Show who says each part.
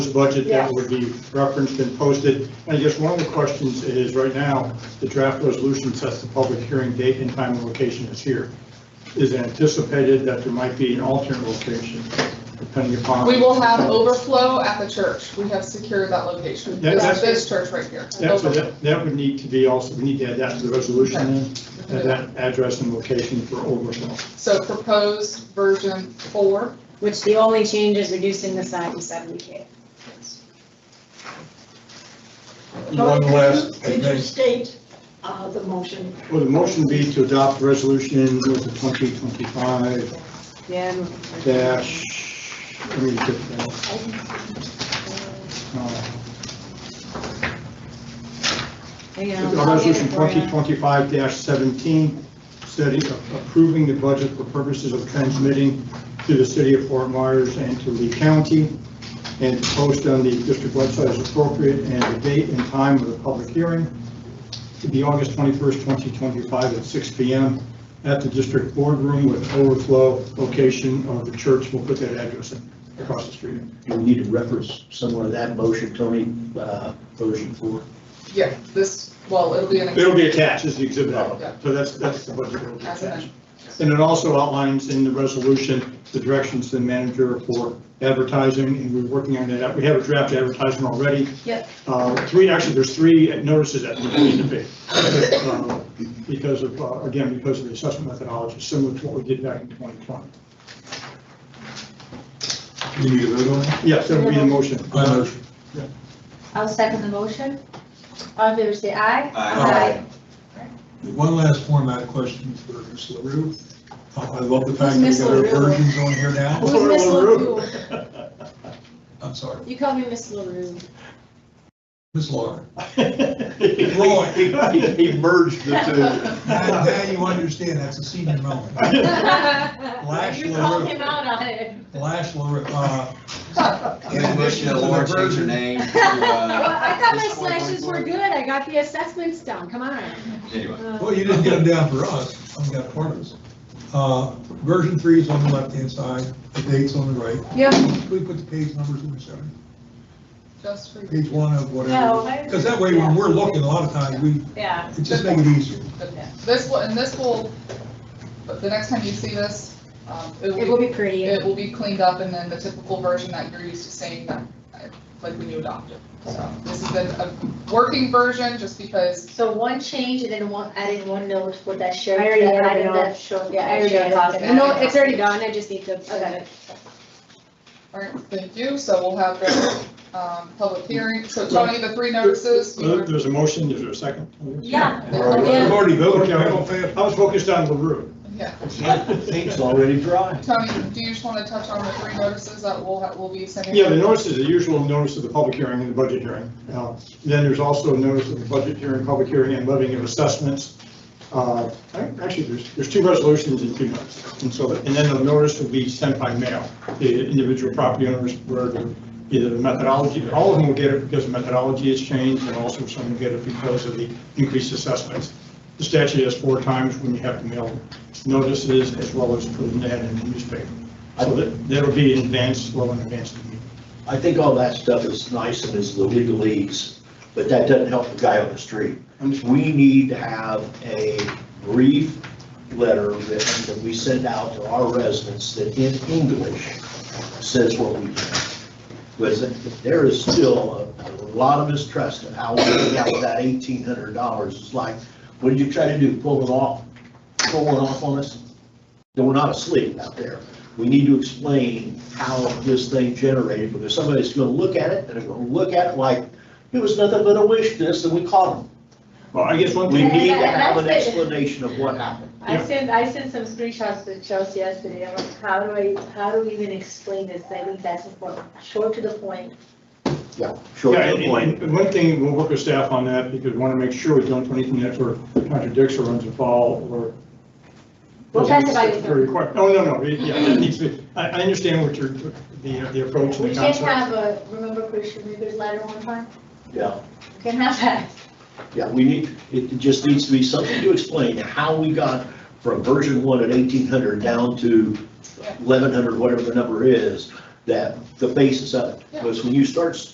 Speaker 1: proposed budget that would be referenced and posted. And I guess one of the questions is, right now, the draft resolution sets the public hearing date and time and location is here. Is anticipated that there might be an alternate location depending upon.
Speaker 2: We will have overflow at the church. We have secured that location.
Speaker 1: Yeah,
Speaker 2: It's
Speaker 1: that's-
Speaker 2: this church right here.
Speaker 1: Yeah, so that, that would need to be also, we need to add that to the resolution, then, and
Speaker 2: Overflow.
Speaker 1: that address and location for overflow.
Speaker 2: So proposed version four,
Speaker 3: Which the only change is reducing the size to seventy K.
Speaker 4: But
Speaker 5: One last, I
Speaker 4: Could you
Speaker 5: think,
Speaker 4: state uh, the motion?
Speaker 1: Will the motion be to adopt resolution with the 2025
Speaker 3: Yeah. I'm-
Speaker 1: dash, let me get that. Uh,
Speaker 3: Hang on, I'll get it
Speaker 1: Resolution
Speaker 3: for you.
Speaker 1: 2025-17, setting, approving the budget for purposes of transmitting to the city of Fort Myers and to Lee County, and to post on the district website as appropriate, and the date and time of the public hearing to be August 21st, 2025 at 6 PM at the district boardroom with overflow location of the church. We'll put that address in across the street.
Speaker 6: Do we need to reference somewhere that motion, Tony, uh, version four?
Speaker 2: yeah, this, well, it'll be an.
Speaker 1: It'll be attached as the exhibit,
Speaker 2: Yeah.
Speaker 1: so that's, that's the budget will be
Speaker 2: As an-
Speaker 1: attached. And it also outlines in the resolution the directions to the manager for advertising, and we're working on that. We have a draft advertisement already.
Speaker 3: Yep.
Speaker 1: Uh, Three, actually, there's three notices that we need to be, uh, because of, uh, again, because of the assessment methodology, similar to what we did back in 2020.
Speaker 5: you need to vote on it?
Speaker 1: Yes, that would be the motion.
Speaker 5: My motion.
Speaker 7: I'll second the motion. All in favor, say aye.
Speaker 5: Aye. One last format question for Ms. LaRue. Uh, I I love the fact that we
Speaker 7: Who's Ms.
Speaker 5: got our
Speaker 7: LaRue?
Speaker 5: versions on here now.
Speaker 7: Who's Miss LaRue?
Speaker 5: I'm sorry,
Speaker 7: You call me Miss LaRue.
Speaker 5: Ms. Laura.
Speaker 1: Roy, he merged the
Speaker 5: Now now you understand, that's a senior moment. Lash
Speaker 7: You called
Speaker 5: LaRue.
Speaker 7: him out on it.
Speaker 5: Lash LaRue, uh,
Speaker 8: I make a motion that Laura change her name to,
Speaker 7: Well,
Speaker 8: uh,
Speaker 7: I thought my slashes were good. I got the assessments done. Come on.
Speaker 8: anyway.
Speaker 5: well, you didn't get them down for us, only got part of us. Uh, Version three is on the left-hand side, the date's on the right.
Speaker 7: Yep.
Speaker 5: We put the page numbers in the center,
Speaker 2: Just for.
Speaker 5: page one of
Speaker 7: No,
Speaker 5: whatever.
Speaker 7: I-
Speaker 5: Because that way, when we're looking, a lot of times, we,
Speaker 7: Yeah.
Speaker 5: it just make it easier.
Speaker 2: This will, and this will, but the next time you see this, um, it
Speaker 3: It will
Speaker 2: will,
Speaker 3: be pretty.
Speaker 2: it will be cleaned up and then the typical version that you're used to seeing, that, uh, like when you adopt it. So this is a, a working version, just because
Speaker 7: So one change and then one, adding one note for that share.
Speaker 3: I already
Speaker 7: that
Speaker 3: added it
Speaker 7: item
Speaker 3: all.
Speaker 7: that showed-
Speaker 3: Yeah, I already got it.
Speaker 7: Yeah.
Speaker 3: No, it's already done, I just need to.
Speaker 7: Okay.
Speaker 2: All right, thank you. So we'll have the um, public hearing. So Tony, the three notices, we were-
Speaker 1: Uh, There's a motion, is there a second?
Speaker 7: Yeah.
Speaker 1: We've already voted,
Speaker 5: Okay, I'm
Speaker 1: I
Speaker 5: on favor.
Speaker 1: was focused on LaRue.
Speaker 2: yeah.
Speaker 6: It's already dry.
Speaker 2: Tony, do you just want to touch on the three notices that we'll, ha- we'll be sending?
Speaker 1: Yeah, the notice is the usual notice of the public hearing and the budget hearing. Uh, Then there's also a notice of the budget hearing, public hearing, and levying of assessments. Uh, Actually, there's, there's two resolutions in two months, and so, and then the notice will be sent by mail, the individual property owners, where the- either the methodology, all of them will get it because the methodology has changed, and also some will get it because of the increased assessments. The statute has four times when you have to mail notices, as well as put an ad in the newspaper. So that, that'll be in advance, well in advance of the meeting.
Speaker 6: I think all that stuff is nice and is the legalese, but that doesn't help the guy on the street.
Speaker 1: Understood.
Speaker 6: We need to have a brief letter that, that we send out to our residents that in English says what we do. Because there is still a, a lot of mistrust of how we got that eighteen hundred dollars. It's like, what did you try to do, pull it off, pull one off on us? No, we're not asleep out there. We need to explain how this thing generated, because somebody's gonna look at it, and they're gonna look at it like, it was nothing but a wish list, and we caught them.
Speaker 1: Well, I guess one
Speaker 6: We
Speaker 1: thing,
Speaker 6: need to have an explanation of what happened.
Speaker 7: I sent, I sent some screenshots to Chelsea yesterday. I'm like, how do I, how do we even explain this? I think that's important. Short to the point.
Speaker 6: Yeah. Short
Speaker 1: yeah,
Speaker 6: to the point.
Speaker 1: and- and one thing, we'll work with staff on that, because we want to make sure we don't do anything that sort of contradicts or runs afoul, or.
Speaker 7: Well, that's about it.
Speaker 1: Or require- Oh, No, no, no, yeah, that needs to, be- I, I understand what your, the, the approach and
Speaker 7: We
Speaker 1: the
Speaker 7: can't
Speaker 1: concept.
Speaker 7: have a, remember Christian Rivers letter one time?
Speaker 6: Yeah,
Speaker 7: We Can't have that.
Speaker 6: yeah, we need, it just needs to be something to explain how we got from version one at eighteen hundred down to eleven hundred, whatever the number is, that the basis of it.
Speaker 2: Yeah.
Speaker 6: Because when you start